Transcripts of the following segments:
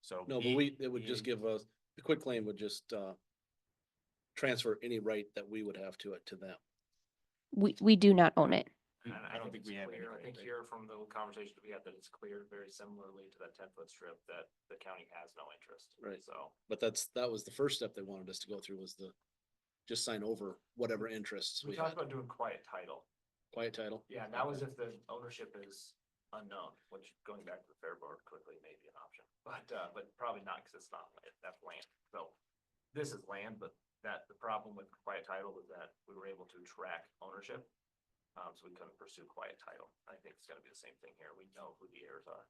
So. No, but he- we, it would just he- give us, the quit claim would just, uh, transfer any right that we would have to it to them. We, we do not own it. I don't- I don't think it's we have any clear. Mm, I right think to- here from the conversations we had that it's clear very similarly to that ten foot strip that the county has no interest. Right. So. But that's, that was the first step they wanted us to go through was the, just sign over whatever interests We we talked had, about doing quiet title. quiet title. Yeah, and that was if the ownership is unknown, which going back to the fair board quickly may be an option, but, uh, but probably not because it's not, land- that's land. So this is land, but that, the problem with quiet title was that we were able to track ownership. Um, so we couldn't pursue quiet title. I think it's gonna be the same thing here. We know who the heirs are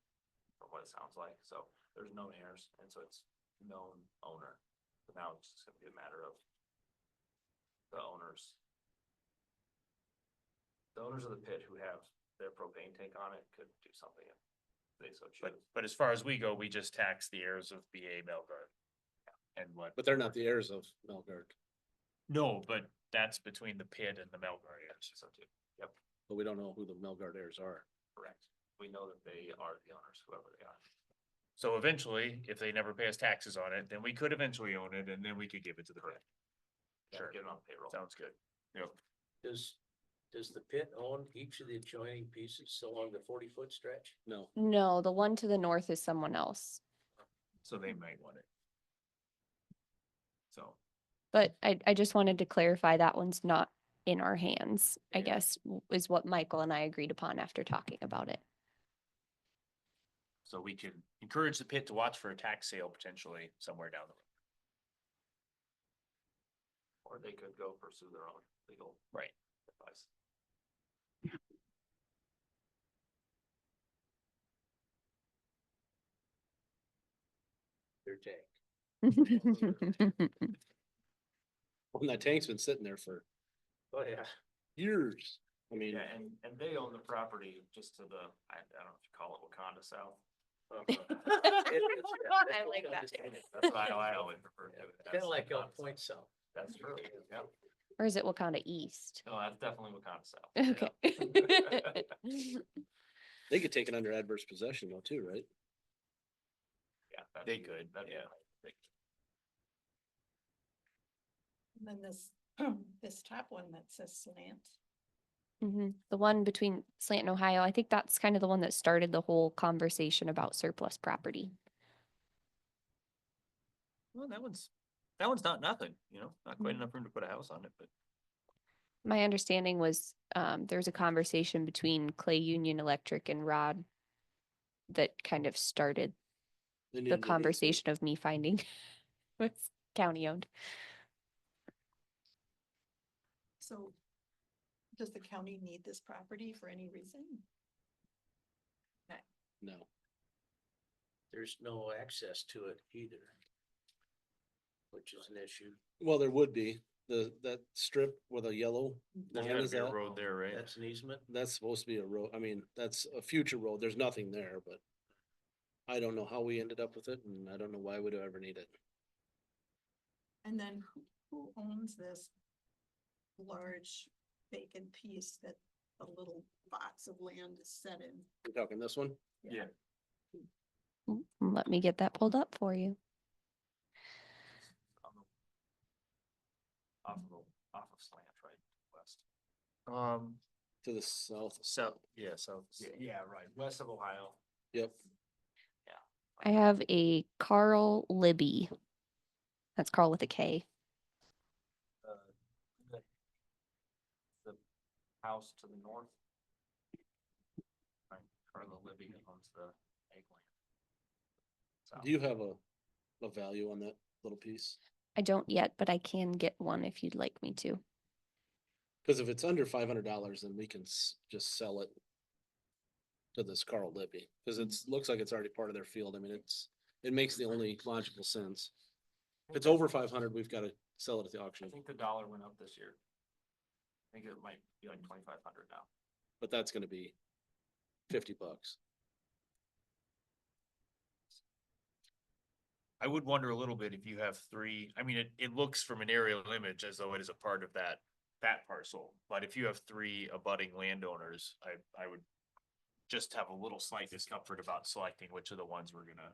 from what it sounds like. So there's known heirs and so it's known owner. So now it's just gonna be a matter of the owners the owners of the pit who have their propane tank on it could do something if they so But, choose. but as far as we go, we just tax the heirs of BA Melgard. And what, But they're not the heirs of Melgard, no, but that's between the pit and the Melgard heirs. So too, but we don't know who the Melgard heirs are. correct. We know that they are the owners, whoever they are. So eventually, if they never pay us taxes on it, then we could eventually own it and then we could give it to the pit. Yeah, Sure. Get it on payroll. Sounds good. Yep. Does, does the pit own each of the adjoining pieces along the forty foot stretch? No, No, the one to the north is someone else. So they might want it. So. But I, I just wanted to clarify that one's not in our hands, I Yeah. guess, w- is what Michael and I agreed upon after talking about it. So we can encourage the pit to watch for a tax sale potentially somewhere down the road. Or they could go pursue their own legal. Right. Advice. Their tank. and that tank's been sitting there for Oh, yeah. years. I mean, Yeah, and, and they own the property just to the, I, I don't know if you call it Wakanda South. Oh, Oh, I like that. That's why I always refer to it. Kind as of like El Wakanda Point South. South. That's true, yeah. Or is it Wakanda East? No, that's definitely Wakanda South. yeah. Okay. they could take it under adverse possession though too, right? Yeah. that'd They be- could, that'd be yeah. my big- And then this, this top one that says slant. Mhm. The one between Slant and Ohio, I think that's kind of the one that started the whole conversation about surplus property. Well, that one's, that one's not nothing, you know, not quite Hmm. Mhm. enough room to put a house on it, but. My understanding was, um, there was a conversation between Clay Union Electric and Rod that kind of started They the needed to be- conversation of me finding what's county owned. So does the county need this property for any reason? No, There's no access to it either. Which is an issue. well, there would be, the, that strip with a yellow There's line gotta is be a out. road there, right? That's an easement. that's supposed to be a road, I mean, that's a future road, there's nothing there, but. I don't know how we ended up with it and I don't know why we'd ever need it. And then who, who owns this large vacant piece that the little box of land is set in? You're talking this one? Mm, Let me get that pulled up for you. on the off of, the- off of slant, right, west. Um, To the south. south, yeah, south. yeah, right, west of Ohio. Yep, I have a Carl Libby. That's Carl with a K. uh, The the house to the north. Right, Carla Libby owns the eggplant. So, do you have a, a value on that little piece? I don't yet, but I can get one if you'd like me to. Cause if it's under five hundred dollars, then we can s- just sell it. To this Carl Libby, cause it's, looks like it's already part of their field, I mean, it's, it makes the only logical sense. If it's over five hundred, we've gotta sell it at the I auction, think the dollar went up this year. I think it might be like twenty-five hundred now. but that's gonna be fifty bucks. I would wonder a little bit if you have three, I mean, it, it looks from an aerial image as though it is a part of that, that parcel. But if you have three abutting landowners, I, I would just have a little slight discomfort about selecting which of the ones we're gonna